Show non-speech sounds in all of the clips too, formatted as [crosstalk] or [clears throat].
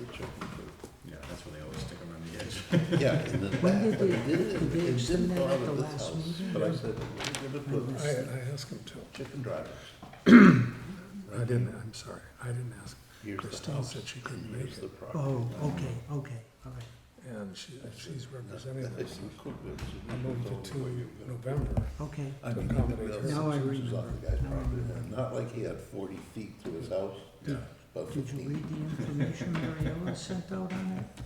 [laughs] Yeah, in the back, but When did it they- didn't, did they it didn't extend that bother at the this last house. meeting? But I said, "We'll give it to I us." I, I asked him to. Chicken drive. [clears throat] I didn't, I'm sorry, I didn't ask. Here's the Christine house. said she couldn't make Here's the it. property. Oh, okay, okay, all right. And she, Oh. she's representing It's us. equipment. I moved it to November. Okay, I mean, Now even I the other remember. was on the guy's Now I property, and not like he had forty feet to his house, Did- but did you fifteen. read the information Mary Ellen sent out on it?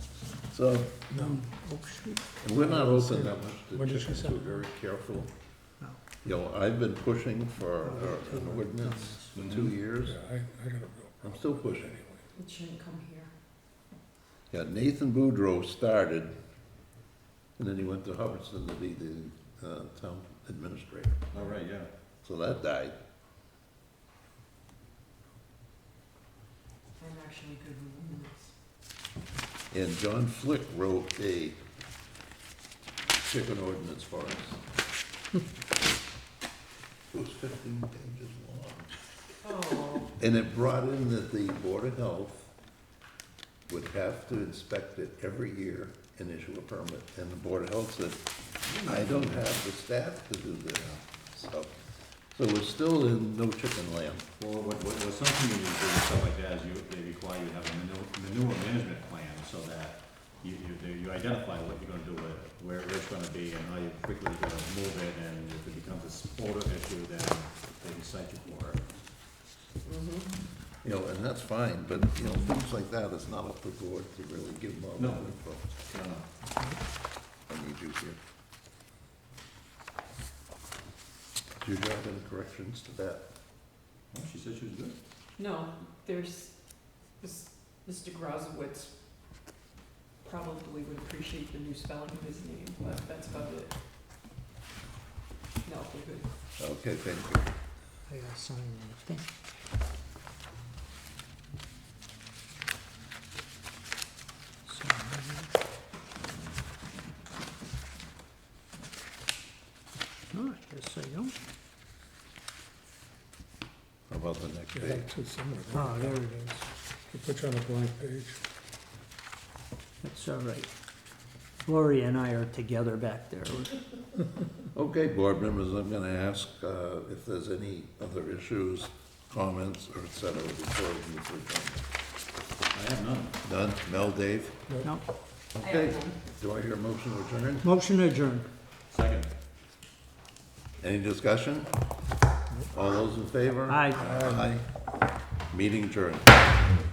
So, No, Oak Street? and we're not open that much to When did she chickens, send we're it? very careful. No. You know, I've been pushing for uh, an ordinance for two years. yeah, I, I gotta go. I'm still pushing. Anyway, It shouldn't come here. Yeah, Nathan Boudreau started, and then he went to Hubbardston to be the uh, town administrator. Oh, right, yeah. So that died. I'm actually good with minutes. And John Flick wrote a chicken ordinance for us. [laughs] It was fifteen pages long. Oh, And it brought in that the Board of Health would have to inspect it every year and issue a permit. And the Board of Health said, I don't have the staff to do this. So, so we're still in no chicken land. Well, what, what, what some communities do and stuff like that is you, they require you to have a manure, manure management plan so that you, you, they- you identify what you're gonna do with it, where it's gonna be and how you quickly you're gonna move it and if it becomes a sport issue, then they can cite you for it. You know, and that's fine, but, you know, things like that, it's not up to the board to really give them all the No. info. I don't know. I need you here. Do you have any corrections to that? Well, She said she was good. no, there's, this, Mr. Grozowitz probably would appreciate the new spelling of his name, but that's about it. No, we're good. Okay, thank you. I gotta sign that. Thank- Sign that. No, I guess I don't. How about the next You page? have two somewhere. Ah, there there you it go. is. You put you on a blank page. That's all right. Lori and I are together back there. Okay, board members, I'm gonna ask, uh, if there's any other issues, comments, or et cetera, before we move I have none. on. Done? Mel, Dave? No, Okay. Do I hear a motion to adjourn? motion adjourned. Second. Any discussion? All those in favor? Aye. Aye. Meeting adjourned.